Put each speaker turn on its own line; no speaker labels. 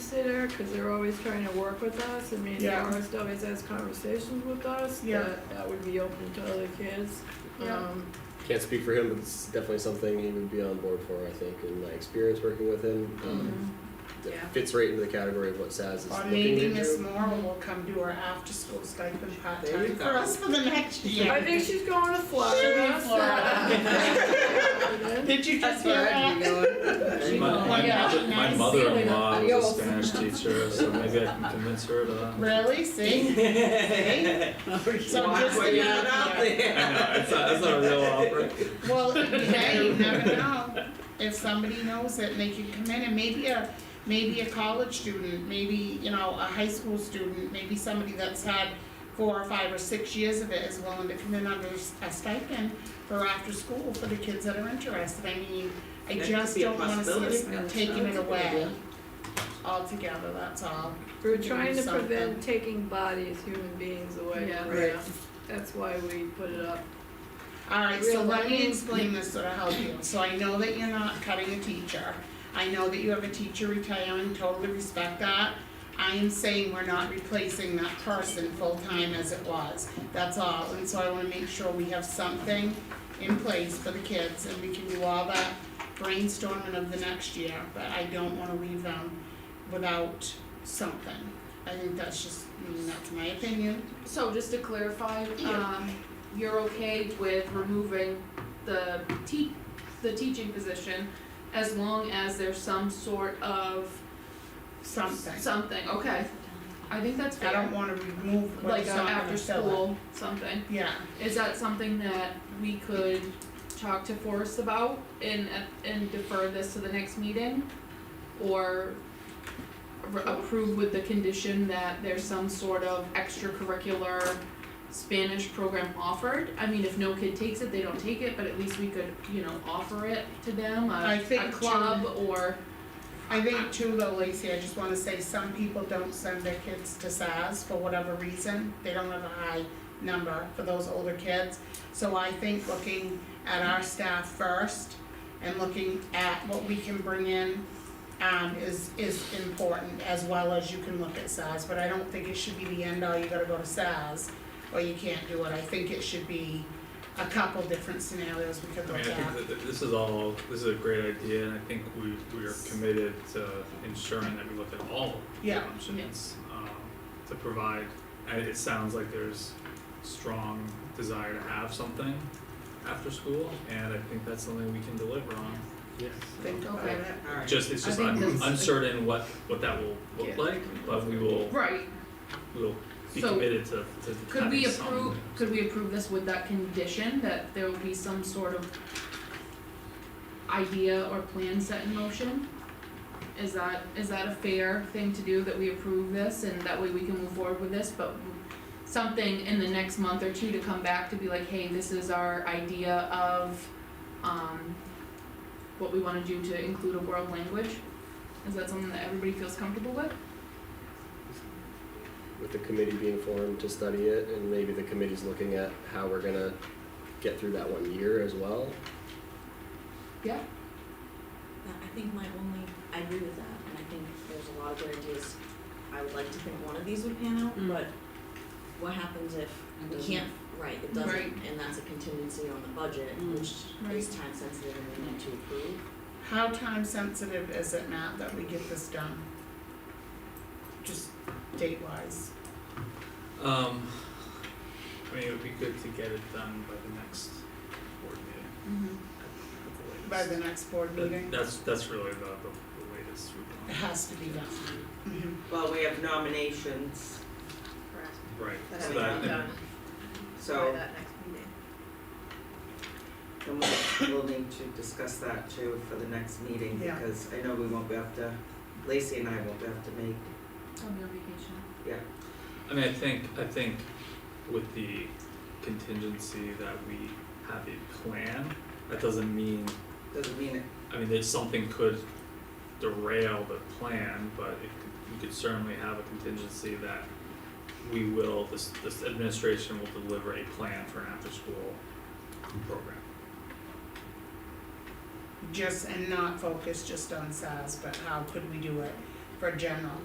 consider, because they're always trying to work with us, I mean, the
Yeah.
artist always has conversations with us,
Yeah.
that, that would be open to other kids.
Yeah.
Um,
Can't speak for him, but it's definitely something he would be on board for, I think, in my experience working with him. Um, that
Yeah.
Fits right into the category of what Saz is
Mm-hmm. Or
looking
maybe
to
Miss
do.
Moore will come do our after-school stipend
There you
part-time for
go.
us for the next year.
I think she's going to
She'll be
Florida.
in
so-
Florida. Did you just
That's
hear
where I'd
that?
be going.
My, my,
Yeah.
mother- my
Nice.
mother-in-law
Yo.
was a Spanish teacher, so maybe I can convince her to.
Really, see? See? So
Why
just
put
an
that out
idea.
I know,
there?
it's not, it's not a real offer.
Well, hey, you never know, if somebody knows it and they can come in and maybe a, maybe a college student, maybe, you know, a high school student, maybe somebody that's had four or five or six years of it is willing to come in under s- a stipend for after school for the kids that are interested, I mean, I
That could
just
be a
don't wanna see us
possibility. Yeah,
taking it
that's a good
away
idea.
altogether, that's all.
We're trying to
Something.
prevent taking bodies, human beings away
Yeah.
from
Right.
us. That's why we put it up.
Alright, so let me
Realize-
explain this so to help you, so I know that you're not cutting a teacher, I know that you have a teacher retiring, totally respect that. I am saying we're not replacing that person full-time as it was, that's all, and so I wanna make sure we have something in place for the kids, and we can do all that brainstorming of the next year, but I don't wanna leave them without something. I think that's just, I mean, that's my opinion,
So just to clarify,
Yeah.
um, you're okay with removing the te- the teaching position as long as there's some sort of
something,
something, okay. I think that's
I
fair.
don't wanna remove what
Like
is
a
not gonna
after
fill it.
school something.
Yeah,
Is that something that we could talk to Forrest about and and defer this to the next meeting? Or r- approve with the condition that there's some sort of extracurricular Spanish program offered? I mean, if no kid takes it, they don't take it, but at least we could, you know, offer it to them,
I
a
think
a club or,
I think too though, Lacey, I just wanna say some people don't send their kids to SAS for whatever reason, they don't have a high number for those older kids. So I think looking at our staff first and looking at what we can bring in um is is important as well as you can look at SAS, but I don't think it should be the end all, you gotta go to SAS or you can't do it, I think it should be a couple different scenarios we could
I mean,
look
I
at.
think that this is all, this is a great idea, and I think we, we are committed to ensuring that we look at all
Yeah.
options, um, to provide, and it sounds like there's strong desire to have something after school, and I think that's something we can deliver on.
Think about
Okay.
it.
Alright.
Just, it's
I
just
think
un-
that's-
uncertain what, what that will
Yeah.
look like, but we will,
right,
we will be
So,
committed to, to
Could we
having some-
approve, could we approve this with that condition, that there will be some sort of idea or plan set in motion? Is that, is that a fair thing to do, that we approve this and that way we can move forward with this, but something in the next month or two to come back to be like, hey, this is our idea of, um, what we wanna do to include a world language? Is that something that everybody feels comfortable with?
With the committee being formed to study it, and maybe the committee's looking at how we're gonna get through that one year as well.
Yeah.
I think my only, I agree with that, and I think there's a lot of good ideas. I would like to think one of these would pan out,
Mm.
but what happens if we can't, right, it
Right.
doesn't, and that's a contingency on the budget, which is
Right.
time sensitive and we need to approve.
How time sensitive is it, Matt, that we get this done? Just date wise,
Um, I mean, it would be good to get it done by the next board meeting, at the
by
latest.
the next board
That-
meeting?
That's, that's really the, the the latest we
It
want.
has to be done.
Mm-hmm.
Mhm.
Well, we have nominations,
Right,
That
so
I'm
that,
not done by
so
that next meeting.
and we'll, we'll need to discuss that too for the next meeting,
Yeah.
because I know we won't be able to, Lacey and I won't be able to make,
On your vacation.
I mean, I think, I think with the contingency that we have a plan, that doesn't mean,
doesn't mean it
I mean, there's something could derail the plan, but it could, we could certainly have a contingency that we will, this, this administration will deliver a plan for an after-school program.
Just, and not focus just on SAS, but how could we do it for general?